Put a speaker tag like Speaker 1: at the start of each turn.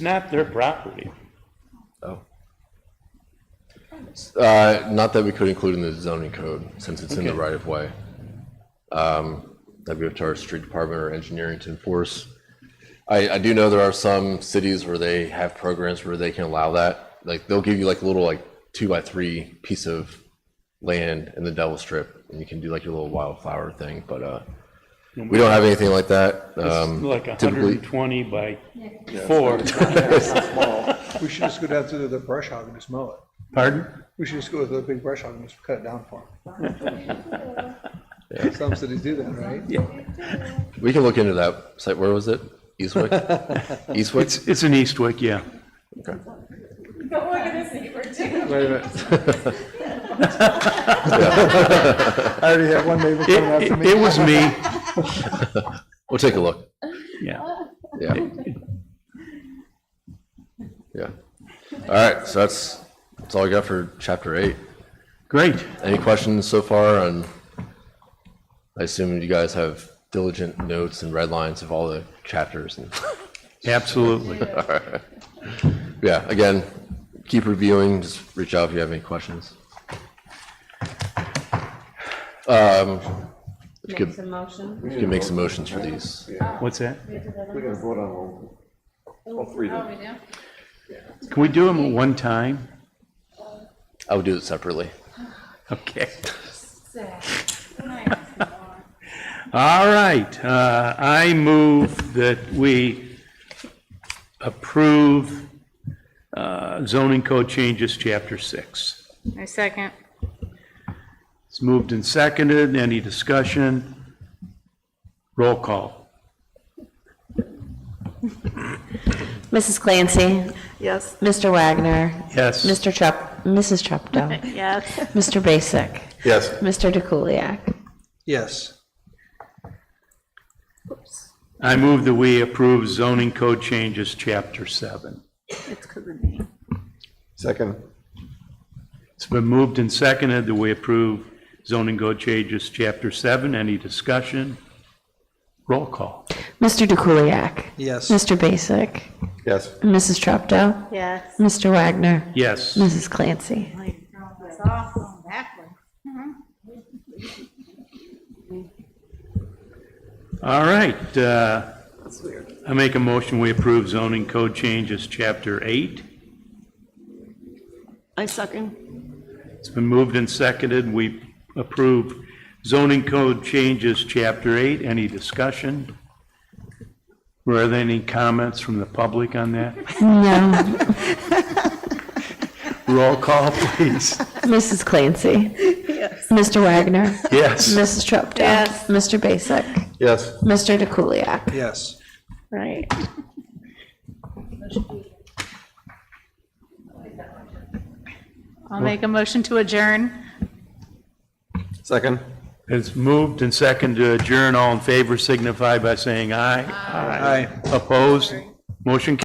Speaker 1: not their property.
Speaker 2: Oh. Uh, not that we could include in the zoning code, since it's in the
Speaker 1: Okay.
Speaker 2: right of way. Um, that'd be up to our street department or engineering to enforce. I, I do know there are some cities where they have programs where they can allow that. Like, they'll give you like a little like two by three piece of land in the Devil Strip, and you can do like your little wildflower thing, but, uh, we don't have anything like that. Um,
Speaker 1: Like a hundred
Speaker 2: typically-
Speaker 1: and twenty by four.
Speaker 3: We should just go down to the brush hog and just mow it.
Speaker 1: Pardon?
Speaker 3: We should just go with the big brush hog and just cut it down for them. Some cities do that, right?
Speaker 2: we can look into that site. Where was it? Eastwick? Eastwick?
Speaker 1: It's, it's in Eastwick, yeah.
Speaker 4: Don't look at his neighbor too.
Speaker 3: Wait a minute. I already have one neighbor
Speaker 1: It,
Speaker 3: coming after
Speaker 1: it-
Speaker 3: me.
Speaker 1: it was me,
Speaker 2: We'll take a look.
Speaker 1: yeah.
Speaker 2: Yeah. Yeah. All right, so that's, that's all I got for chapter eight.
Speaker 1: Great.
Speaker 2: Any questions so far on, I assume you guys have diligent notes and red lines of all the chapters and,
Speaker 1: Absolutely.
Speaker 2: yeah, again, keep reviewing, just reach out if you have any questions. Um, if you
Speaker 4: Make
Speaker 2: could,
Speaker 4: some motion.
Speaker 2: if you could make some motions for these.
Speaker 1: What's that?
Speaker 5: We're gonna vote on all, all three of
Speaker 4: Oh,
Speaker 5: them.
Speaker 4: we do?
Speaker 1: Can we do them at one time?
Speaker 2: I would do it separately.
Speaker 1: Okay.
Speaker 4: Sad.
Speaker 1: All right, uh, I move that we approve, uh, zoning code changes, chapter six.
Speaker 6: I second.
Speaker 1: It's moved and seconded. Any discussion? Roll call.
Speaker 7: Mrs. Clancy.
Speaker 6: Yes.
Speaker 7: Mr. Wagner.
Speaker 1: Yes.
Speaker 7: Mr. Chup, Mrs. Chupdo.
Speaker 6: Yes.
Speaker 7: Mr. Basic.
Speaker 2: Yes.
Speaker 7: Mr. DeKuliak.
Speaker 3: Yes.
Speaker 1: I move that we approve zoning code changes, chapter seven.
Speaker 6: It's because of me.
Speaker 5: Second.
Speaker 1: It's been moved and seconded that we approve zoning code changes, chapter seven. Any discussion? Roll call.
Speaker 7: Mr. DeKuliak.
Speaker 3: Yes.
Speaker 7: Mr. Basic.
Speaker 5: Yes.
Speaker 7: Mrs. Chupdo.
Speaker 6: Yes.
Speaker 7: Mr. Wagner.
Speaker 1: Yes.
Speaker 7: Mrs. Clancy.
Speaker 6: It's off on that one.
Speaker 1: All right. uh, I make a motion, we approve zoning code changes, chapter eight.
Speaker 8: I second.
Speaker 1: It's been moved and seconded. We approve zoning code changes, chapter eight. Any discussion? Were there any comments from the public on that?
Speaker 7: No.
Speaker 1: Roll call, please.
Speaker 7: Mrs. Clancy. Mr. Wagner.
Speaker 1: Yes.
Speaker 7: Mrs. Chupdo.
Speaker 6: Yes.
Speaker 7: Mr. Basic.
Speaker 5: Yes.
Speaker 7: Mr. DeKuliak.
Speaker 3: Yes.
Speaker 6: Right. I'll make a motion to adjourn.
Speaker 5: Second.
Speaker 1: It's moved and seconded to adjourn. All in favor signify by saying aye.
Speaker 3: Aye.
Speaker 1: Opposed? Motion